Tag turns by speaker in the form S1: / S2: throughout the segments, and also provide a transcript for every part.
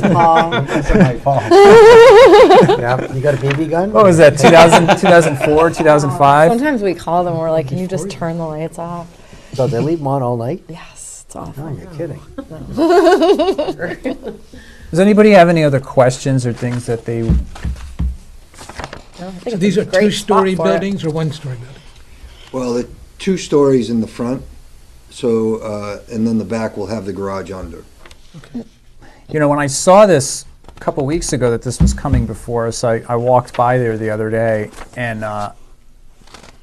S1: Paul.
S2: That's my fault. Yeah, You got a BB gun?
S3: What was that, 2000, 2004, 2005?
S1: Sometimes we call them, we're like, can you just turn the lights off?
S2: So they leave them on all night?
S1: Yes, it's
S2: No,
S1: awful.
S2: you're kidding.
S3: Does anybody have any other questions or things that they,
S1: No, I think
S4: So
S1: it's
S4: these
S1: a
S4: are
S1: great
S4: two-story
S1: spot for it.
S4: buildings or one-story buildings?
S5: Well, the two stories in the front, so, uh, and then the back will have the garage under.
S3: you know, when I saw this a couple weeks ago that this was coming before us, I, I walked by there the other day and uh,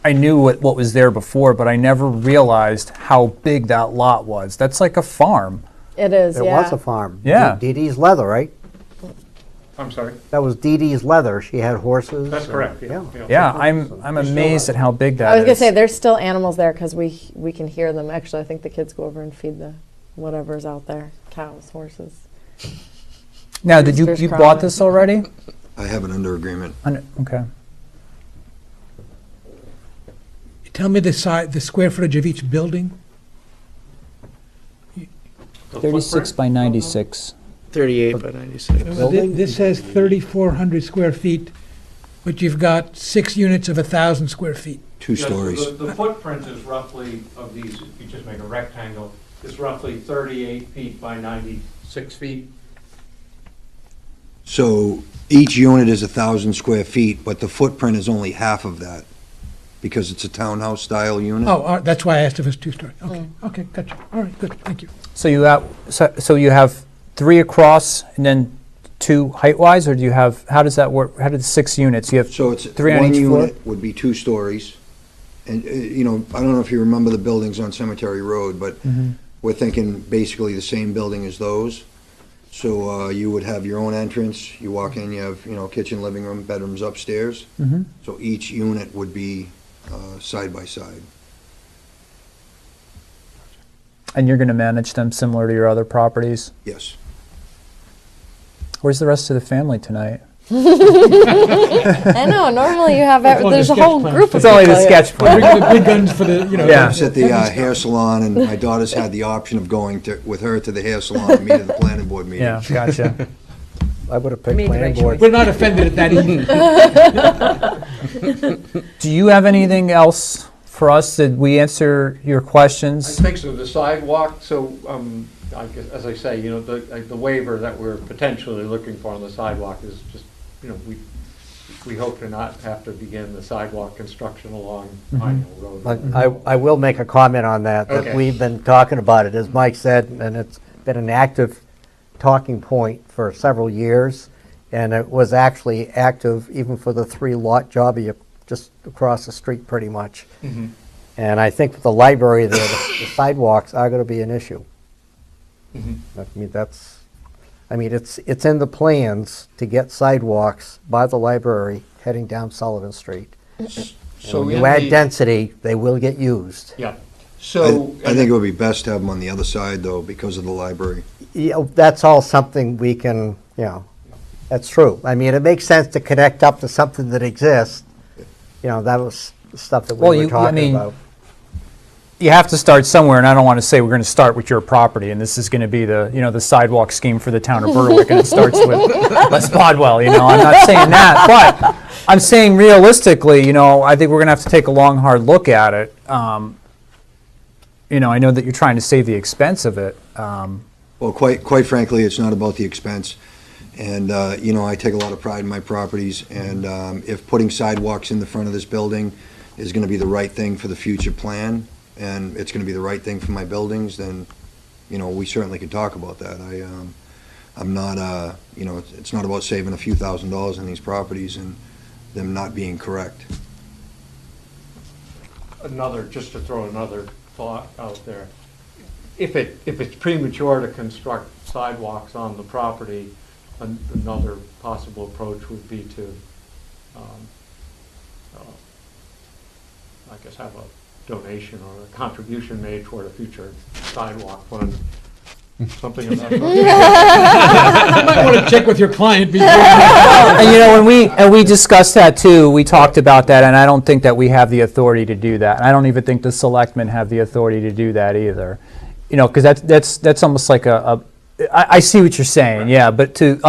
S3: I knew what, what was there before, but I never realized how big that lot was. That's like a farm.
S1: It is,
S2: It
S1: yeah.
S2: was a farm.
S3: Yeah.
S2: Dee Dee's Leather, right?
S6: I'm sorry,
S2: That was Dee Dee's Leather. She had horses.
S6: that's
S2: and-
S6: correct,
S2: Yeah.
S6: yeah.
S3: Yeah, I'm, I'm amazed at how big that
S1: I
S3: is.
S1: was gonna say, there's still animals there, because we, we can hear them. Actually, I think the kids go over and feed the whatever's out there, cows, horses.
S3: Now, did you,
S1: Roosters
S3: you bought
S1: crowing.
S3: this already?
S5: I have an under agreement.
S3: Under- Okay.
S4: Tell me the size, the square footage of each building?
S6: The footprint?
S3: 36 by 96.
S7: 38 by 96.
S4: Well, thi- This says 3,400 square feet, but you've got six units of 1,000 square feet.
S5: Two
S6: Yes,
S5: stories.
S6: the- The footprint is roughly, of these, if you just make a rectangle, is roughly 38 feet by 96 feet.
S5: So each unit is a thousand square feet, but the footprint is only half of that because it's a townhouse style unit.
S4: Oh, all right, that's why I asked if it's two-story. Okay,
S1: Mm.
S4: okay, gotcha. All right, good, thank you.
S3: So you have, so, so you have three across and then two height-wise, or do you have, how does that work? How do the six units, you have
S5: So it's,
S3: three on
S5: one
S3: each floor?
S5: unit would be two stories. And, uh, you know, I don't know if you remember the buildings on Cemetery Road, but
S3: Mm-hmm.
S5: we're thinking basically the same building as those. So uh, you would have your own entrance, you walk in, you have, you know, kitchen, living room, bedrooms upstairs.
S3: Mhm.
S5: So each unit would be uh, side by side.
S3: And you're going to manage them similar to your other properties?
S5: Yes.
S3: Where's the rest of the family tonight?
S1: I know, normally you have,
S4: It's
S1: ev-
S4: on
S1: there's
S4: the
S1: a whole
S4: sketch plan.
S1: group of
S3: It's only the
S8: Oh,
S1: people here.
S3: sketch
S4: Bring
S3: plan.
S4: the big guns for the, you know.
S3: Yeah.
S5: I was at the uh, hair salon, and my daughter's had the option of going to, with her to the hair salon and meet at the planning board meeting.
S3: Yeah, gotcha.
S2: I would have picked
S8: Made the
S2: planning
S8: right
S2: board.
S4: We're not offended at that either.
S3: Do you have anything else for us? Did we answer your
S6: I
S3: questions?
S6: think so, the sidewalk, so, um, I guess, as I say, you know, the, like, the waiver that we're potentially looking for on the sidewalk is just, you know, we, we hope to not have to begin the sidewalk construction along Pine Hill Road.
S2: But I, I will make a comment on that, that
S6: Okay.
S2: we've been talking about it, as Mike said, and it's been an active talking point for several years. And it was actually active even for the three lot job you- just across the street pretty much.
S6: Mm-hmm.
S2: And I think with the library there, the the sidewalks are gonna be an issue.
S6: Mm-hmm.
S2: I mean, that's, I mean, it's, it's in the plans to get sidewalks by the library heading down Sullivan Street.
S6: So
S2: When
S6: in
S2: you add
S6: the-
S2: density, they will get used.
S6: Yeah,
S5: I
S6: so.
S5: I think it would be best to have them on the other side, though, because of the library.
S2: Yeah, that's all something we can, you know, that's true. I mean, it makes sense to connect up to something that exists. You know, that was the stuff that
S3: Well,
S2: we
S3: you-
S2: were
S3: I
S2: talking
S3: mean-
S2: about.
S3: You have to start somewhere, and I don't want to say we're going to start with your property, and this is going to be the, you know, the sidewalk scheme for the town of Berwick, and it starts with Les Bodwell, you know, I'm not saying that, but I'm saying realistically, you know, I think we're going to have to take a long, hard look at it. Um, You know, I know that you're trying to save the expense of it. Um,
S5: Well, quite, quite frankly, it's not about the expense. And, uh, you know, I take a lot of pride in my properties, and um, if putting sidewalks in the front of this building is going to be the right thing for the future plan, and it's going to be the right thing for my buildings, then, you know, we certainly can talk about that. I, um, I'm not, uh, you know, it's- it's not about saving a few thousand dollars on these properties and them not being correct.
S6: another, just to throw another thought out there. If it, if it's premature to construct sidewalks on the property, an- another possible approach would be to, um, uh, I guess, have a donation or a contribution made toward a future sidewalk fund, something of that sort.
S4: You might want to check with your client before.
S3: And you know, when we, and we discussed that too, we talked about that, and I don't think that we have the authority to do that. And I don't even think the selectmen have the authority to do that either. You know, because that's, that's, that's almost like a, a- I, I see what you're saying, yeah, but to